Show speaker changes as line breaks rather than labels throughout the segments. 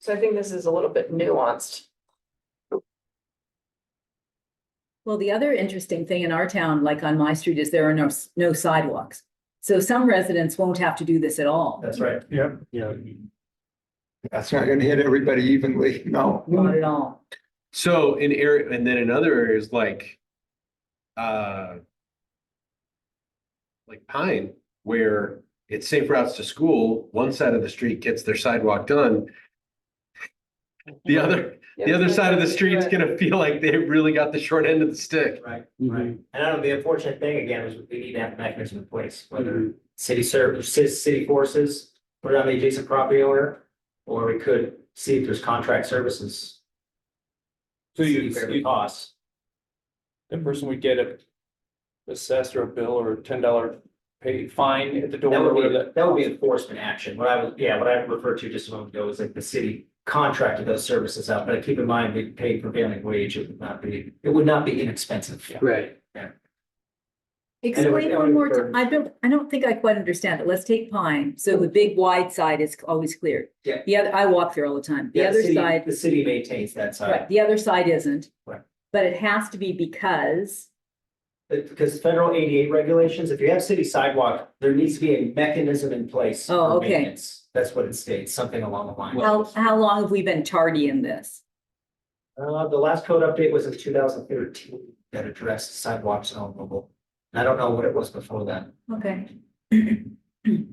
So I think this is a little bit nuanced.
Well, the other interesting thing in our town, like on my street, is there are no, s- no sidewalks. So some residents won't have to do this at all,
That's right.
Yep.
Yeah.
That's not gonna hit everybody evenly, no.
not at all.
So in area, and then in other areas like, uh, like Pine, where it's safe routes to school, one side of the street gets their sidewalk done. The other, the other side of the street's gonna feel like they really got the short end of the stick.
Right, right. And I don't know, the unfortunate thing again is we need to have mechanism in place, whether
Mm-hmm.
city service, city forces, put it on the adjacent property owner, or we could see if there's contract services.
So you,
See if it
you,
costs.
the person would get a assessed or a bill or a ten dollar pay fine at the door
That
or
would
whatever
be,
that.
that would be enforcement action. What I was, yeah, what I referred to just a moment ago is like the city contracted those services out, but keep in mind, they pay prevailing wage. It would not be, it would not be inexpensive.
Right.
it would-
Explain
it
one
would
more time.
burn.
I don't, I don't think I quite understand it. Let's take Pine. So the big wide side is always clear.
Yeah.
The other, I walk there all the time. The
Yeah,
other
city-
side,
The city maintains that
right,
side,
the other side isn't.
Right.
But it has to be because,
But because federal eighty-eight regulations, if you have city sidewalk, there needs to be a mechanism in place.
Oh,
for
okay.
maintenance. That's what it states, something along the line.
how, how long have we been tardy in this?
Uh, the last code update was in two thousand thirteen that addressed sidewalks and on mobile. And I don't know what it was before then.
Okay. It's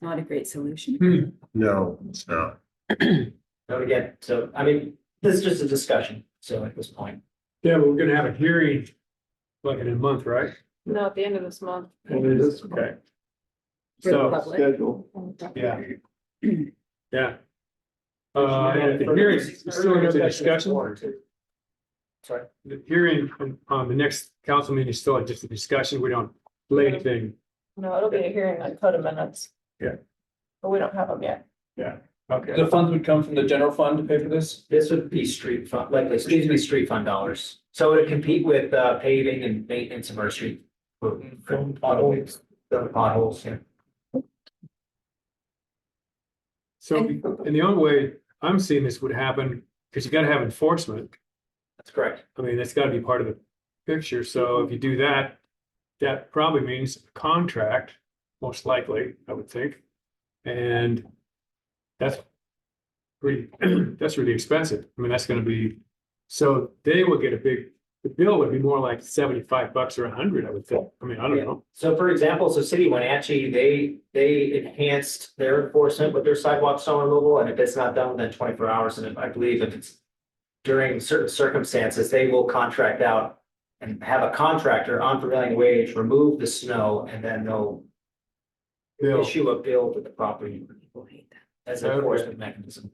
not a great solution.
No, it's not.
But again, so, I mean, this is just a discussion, so at this point.
Yeah, but we're gonna have a hearing like in a month, right?
No, at the end of this month.
Okay.
For the
So,
public.
Schedule.
yeah. Yeah. Uh, yeah, the hearing,
hearings
still under discussion,
Sorry,
the hearing on, on the next council meeting is still just a discussion, we don't lay anything.
No, it'll be a hearing on code amendments.
Yeah.
But we don't have them yet.
Okay.
The funds would come from the general fund to pay for this?
this would be street fund, likely, excuse me, street fund dollars. So it would compete with uh, paving and maintenance of our street. for- for Potholes, the potholes, yeah.
So, and the only way I'm seeing this would happen, because you gotta have enforcement,
That's correct.
I mean, that's gotta be part of the picture, so if you do that, that probably means a contract, most likely, I would think. And that's pretty, that's really expensive, I mean, that's gonna be, so they will get a big, the bill would be more like seventy-five bucks or a hundred, I would think, I mean, I don't know.
So for example, so City of Wenatchee, they, they enhanced their enforcement with their sidewalk snow removal, and if it's not done within twenty-four hours, and if- I believe if it's during certain circumstances, they will contract out and have a contractor on prevailing wage remove the snow, and then they'll
Bill,
issue a bill to the property as an enforcement mechanism.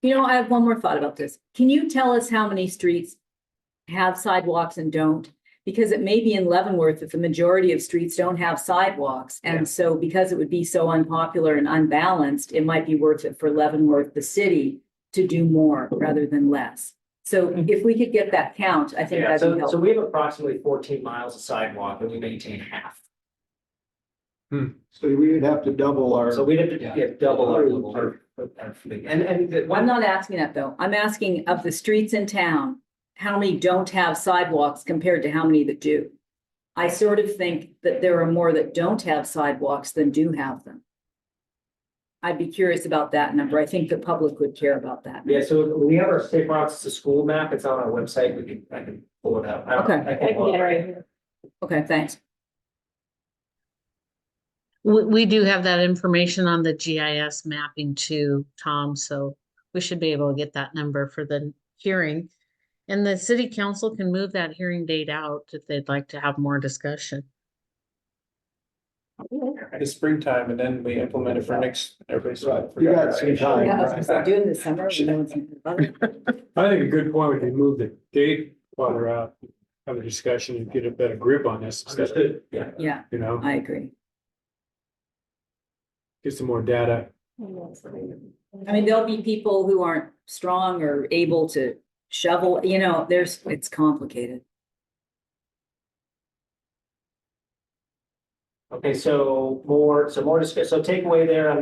You know, I have one more thought about this. Can you tell us how many streets have sidewalks and don't? Because it may be in Leavenworth that the majority of streets don't have sidewalks.
Yeah.
And so because it would be so unpopular and unbalanced, it might be worth it for Leavenworth, the city, to do more rather than less. So if we could get that count, I think
Mm-hmm.
that'd be
Yeah, so, so
helpful.
we have approximately fourteen miles of sidewalk and we maintain half.
So we would have to double our.
So we'd have to
Yeah.
get double our, our- our fleet. and, and the
I'm
one,
not asking that though. I'm asking of the streets in town, how many don't have sidewalks compared to how many that do? I sort of think that there are more that don't have sidewalks than do have them. I'd be curious about that number. I think the public would care about that.
yeah, so we have our safe routes to school map. It's on our website. We can, I can pull it up. I don't-
Okay.
I can pull it up.
Okay, thanks.
We, we do have that information on the GIS mapping too, Tom, so we should be able to get that number for the hearing. And the city council can move that hearing date out if they'd like to have more discussion.
The springtime and then we implement it for next, everybody's.
You got some time.
Yeah, I was gonna say, doing this summer. we know it's gonna be fun.
I think a good point would be move the date while we're out, have a discussion and get a better grip on this, instead of,
Understood. Yeah.
Yeah,
you know,
I agree.
get some more data.
I mean, there'll be people who aren't strong or able to shovel, you know, there's, it's complicated.
Okay, so more, so more discuss, so takeaway there on